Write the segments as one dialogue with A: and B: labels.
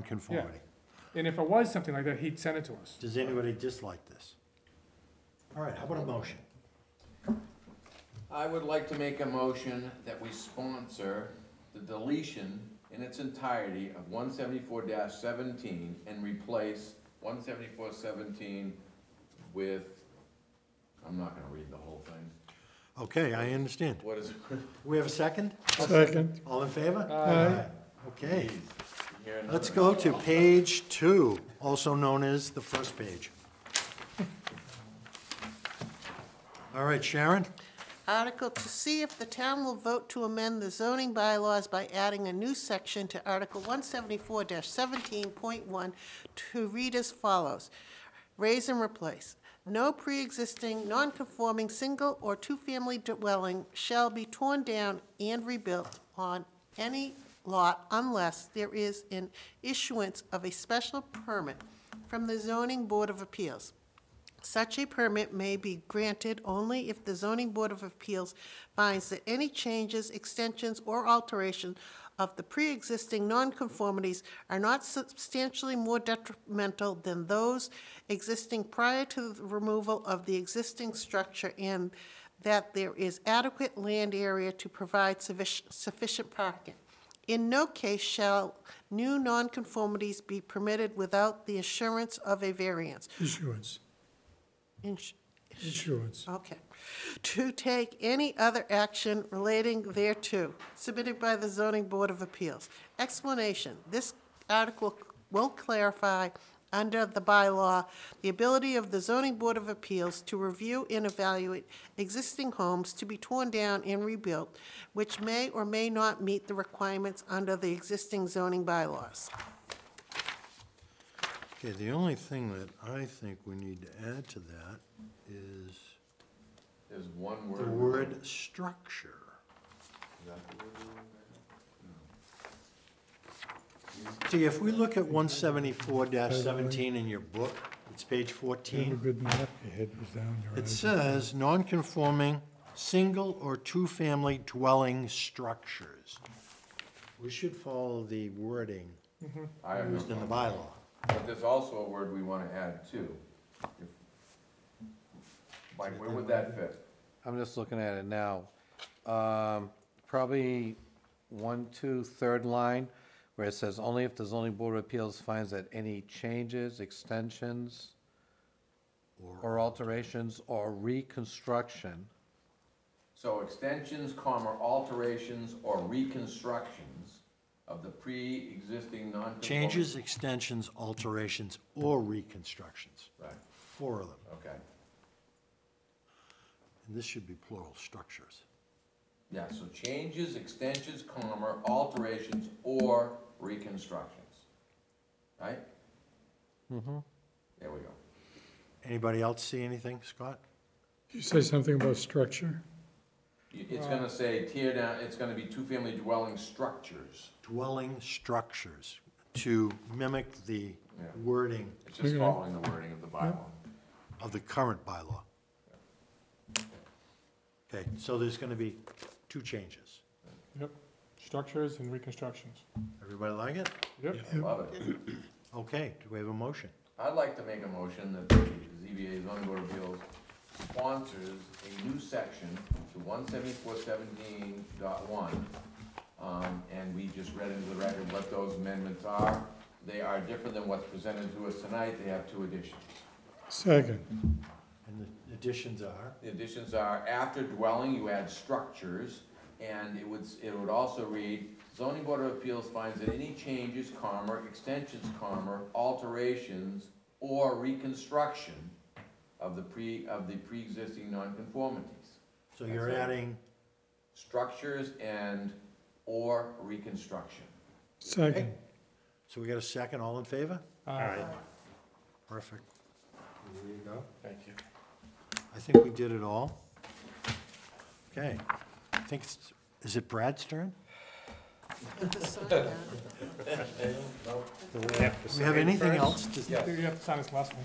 A: nonconformity.
B: And if it was something like that, he'd send it to us.
A: Does anybody dislike this? All right, how about a motion?
C: I would like to make a motion that we sponsor the deletion in its entirety of one seventy-four seventeen and replace one seventy-four seventeen with, I'm not gonna read the whole thing.
A: Okay, I understand.
C: What is,
A: We have a second?
D: Second.
A: All in favor?
D: Aye.
A: Okay,
C: here another-
A: let's go to page two, also known as the first page. All right, Sharon?
E: Article to see if the town will vote to amend the zoning bylaws by adding a new section to Article one seventy-four seventeen point one to read as follows. Raise and replace. No pre-existing, non-conforming, single or two-family dwelling shall be torn down and rebuilt on any lot unless there is an issuance of a special permit from the zoning board of appeals. Such a permit may be granted only if the zoning board of appeals finds that any changes, extensions, or alterations of the pre-existing nonconformities are not substantially more detrimental than those existing prior to the removal of the existing structure and that there is adequate land area to provide suffic- sufficient parking. In no case shall new nonconformities be permitted without the assurance of a variance.
D: Issuance,
E: Ins-
D: issuance.
E: Okay. To take any other action relating thereto, submitted by the zoning board of appeals. Explanation, this article will clarify, under the bylaw, the ability of the zoning board of appeals to review and evaluate existing homes to be torn down and rebuilt, which may or may not meet the requirements under the existing zoning bylaws.
A: Okay, the only thing that I think we need to add to that is
C: There's one
A: the
C: word.
A: word structure.
C: Is that the word?
A: See, if we look at one seventy-four seventeen in your book, it's page
D: You have a
A: fourteen.
D: good map, your head was down, your
A: It
D: eyes-
A: says, "Non-conforming, single or two-family dwelling structures." We should follow the wording
C: I have no
A: used in the
C: problem.
A: bylaw.
C: But there's also a word we wanna add too. If- Mike, where would that fit?
F: I'm just looking at it now. Um, Probably one, two, third line, where it says, "Only if the zoning board of appeals finds that any changes, extensions, or alterations or reconstruction."
C: So extensions, comma, alterations or reconstructions of the pre-existing non
A: Changes, extensions, alterations, or reconstructions.
C: Right,
A: Four of them.
C: okay.
A: And this should be plural, structures.
C: Yeah, so changes, extensions, comma, alterations or reconstructions. Right? Mm-hmm. There we go.
A: Anybody else see anything, Scott?
D: You say something about structure?
C: You- It's gonna say tear down, it's gonna be two-family dwelling structures.
A: Dwelling structures, to mimic the
C: Yeah.
A: wording
C: It's just
D: Okay.
C: following the wording of the bylaw.
A: of the current bylaw. Okay, so there's gonna be two changes.
B: Yep, structures and reconstructions.
A: Everybody like it?
B: Yep.
C: I Love it.
A: Okay, do we have a motion?
C: I'd like to make a motion that the ZBA zoning board of appeals sponsors a new section to one seventy-four seventeen dot one. Um, and we just read into the record what those amendments are. They are different than what's presented to us tonight. They have two additions.
D: Second,
A: And the additions are?
C: The additions are after dwelling, you add structures, and it would, it would also read, zoning board of appeals finds that any changes, comma, extensions, comma, alterations, or reconstruction of the pre, of the pre-existing nonconformities.
A: So you're
C: That's it.
A: adding,
C: Structures and or reconstruction.
D: second,
A: so we got a second, all in favor?
B: Uh,
A: Perfect. There you go.
C: Thank you.
A: I think we did it all. Okay, I think, it's- is it Brad's turn? Do we have anything else to?
B: I think you have to sign this last one.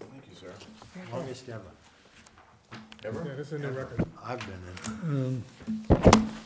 C: Thank you, sir.
A: Longest ever
B: Yeah, this is a new record.
A: I've been in.